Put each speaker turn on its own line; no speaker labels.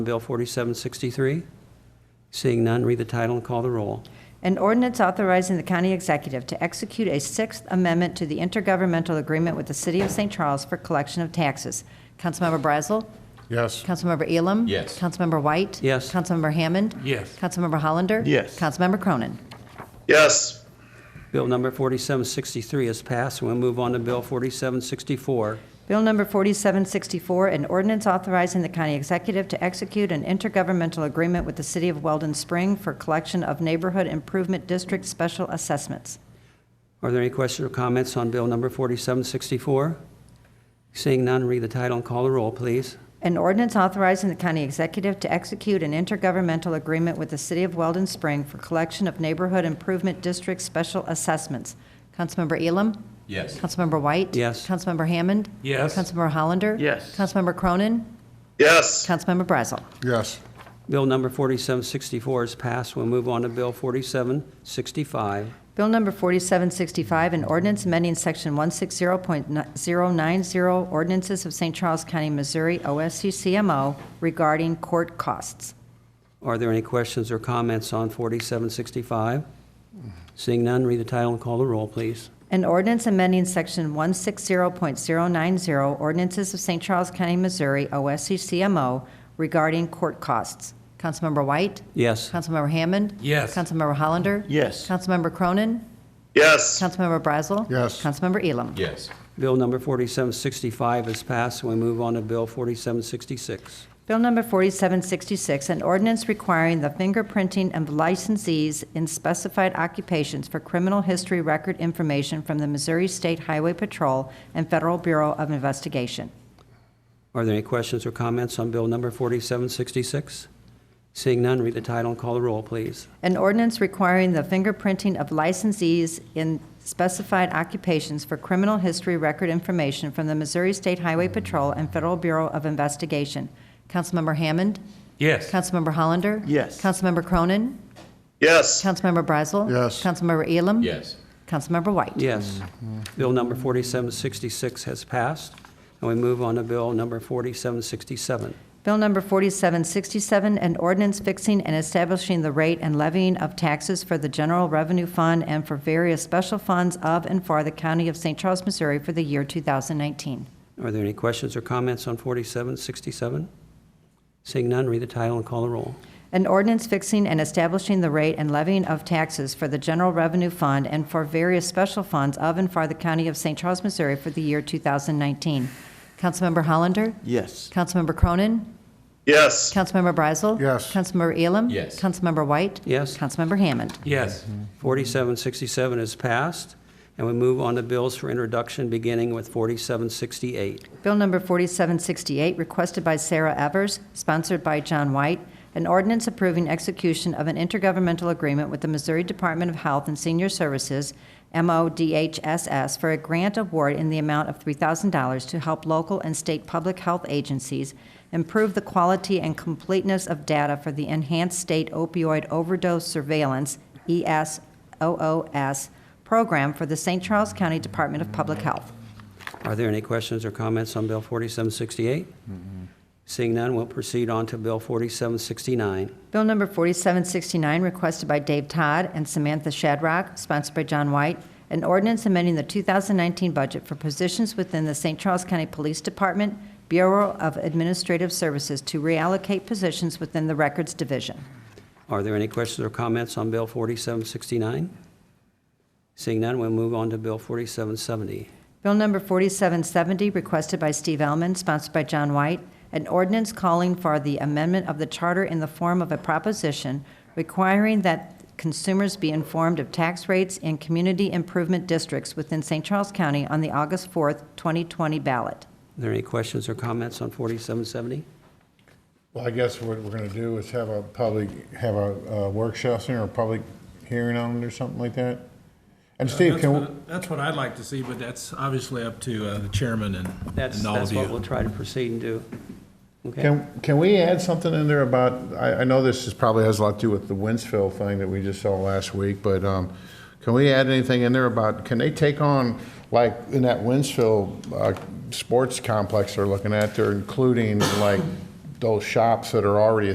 Bill 4763? Seeing none, read the title and call the roll.
An ordinance authorizing the county executive to execute a Sixth Amendment to the intergovernmental agreement with the City of St. Charles for collection of taxes. Councilmember Brazel?
Yes.
Councilmember Elam?
Yes.
Councilmember White?
Yes.
Councilmember Hammond?
Yes.
Councilmember Hollander?
Yes.
Councilmember Cronin?
yes,
Bill number 4763 is passed, and we'll move on to Bill 4764.
Bill number 4764, an ordinance authorizing the county executive to execute an intergovernmental agreement with the City of Weldon Spring for collection of neighborhood improvement district special assessments.
Are there any questions or comments on Bill number 4764? Seeing none, read the title and call the roll, please.
An ordinance authorizing the county executive to execute an intergovernmental agreement with the City of Weldon Spring for collection of neighborhood improvement district special assessments. Councilmember Elam?
Yes.
Councilmember White?
Yes.
Councilmember Hammond?
Yes.
Councilmember Hollander?
Yes.
Councilmember Cronin?
yes,
Councilmember Brazel?
Yes.
Bill number 4764 is passed, we'll move on to Bill 4765.
Bill number 4765, an ordinance amending section 160.090 ordinances of St. Charles County, Missouri, OSCCMO regarding court costs.
Are there any questions or comments on 4765? Seeing none, read the title and call the roll, please.
An ordinance amending section 160.090 ordinances of St. Charles County, Missouri, OSCCMO regarding court costs. Councilmember White?
Yes.
Councilmember Hammond?
Yes.
Councilmember Hollander?
Yes.
Councilmember Cronin?
yes,
Councilmember Brazel?
Yes.
Councilmember Elam?
Yes.
Bill number 4765 is passed, and we move on to Bill 4766.
Bill number 4766, an ordinance requiring the fingerprinting of licensees in specified occupations for criminal history record information from the Missouri State Highway Patrol and Federal Bureau of Investigation.
Are there any questions or comments on Bill number 4766? Seeing none, read the title and call the roll, please.
An ordinance requiring the fingerprinting of licensees in specified occupations for criminal history record information from the Missouri State Highway Patrol and Federal Bureau of Investigation. Councilmember Hammond?
Yes.
Councilmember Hollander?
Yes.
Councilmember Cronin?
yes,
Councilmember Brazel?
Yes.
Councilmember Elam?
Yes.
Councilmember White?
Yes. Bill number 4766 has passed, and we move on to Bill number 4767.
Bill number 4767, an ordinance fixing and establishing the rate and levying of taxes for the General Revenue Fund and for various special funds of and for the County of St. Charles, Missouri for the year 2019.
Are there any questions or comments on 4767? Seeing none, read the title and call the roll.
An ordinance fixing and establishing the rate and levying of taxes for the General Revenue Fund and for various special funds of and for the County of St. Charles, Missouri for the year 2019. Councilmember Hollander?
Yes.
Councilmember Cronin?
yes,
Councilmember Brazel?
Yes.
Councilmember Elam?
Yes.
Councilmember White?
Yes.
Councilmember Hammond?
Yes.
4767 is passed, and we move on to bills for introduction, beginning with 4768.
Bill number 4768, requested by Sarah Evers, sponsored by John White, an ordinance approving execution of an intergovernmental agreement with the Missouri Department of Health and Senior Services, MODHSS, for a grant award in the amount of $3,000 to help local and state public health agencies improve the quality and completeness of data for the Enhanced State Opioid Overdose Surveillance, E ESOOS, program for the St. Charles County Department of Public Health.
Are there any questions or comments on Bill 4768? Seeing none, we'll proceed on to Bill 4769.
Bill number 4769, requested by Dave Todd and Samantha Shadrock, sponsored by John White, an ordinance amending the 2019 budget for positions within the St. Charles County Police Department, Bureau of Administrative Services to reallocate positions within the Records Division.
Are there any questions or comments on Bill 4769? Seeing none, we'll move on to Bill 4770.
Bill number 4770, requested by Steve Ellman, sponsored by John White, an ordinance calling for the amendment of the charter in the form of a proposition requiring that consumers be informed of tax rates in community improvement districts within St. Charles County on the August 4th, 2020 ballot.
Are there any questions or comments on 4770?
Well, I guess what we're going to do is have a public, have a uh, work session or a public hearing on it or something like that. And Steve,
That's
can, we-
what- That's what I'd like to see, but that's obviously up to uh, the chairman and
That's,
and all
that's
of
what we'll
you.
try to proceed and do. Okay?
can, can we add something in there about, I, I know this is probably has a lot to do with the Winsville thing that we just saw last week, but um, can we add anything in there about, can they take on, like, in that Winsville uh, sports complex they're looking at, they're including like those shops that are already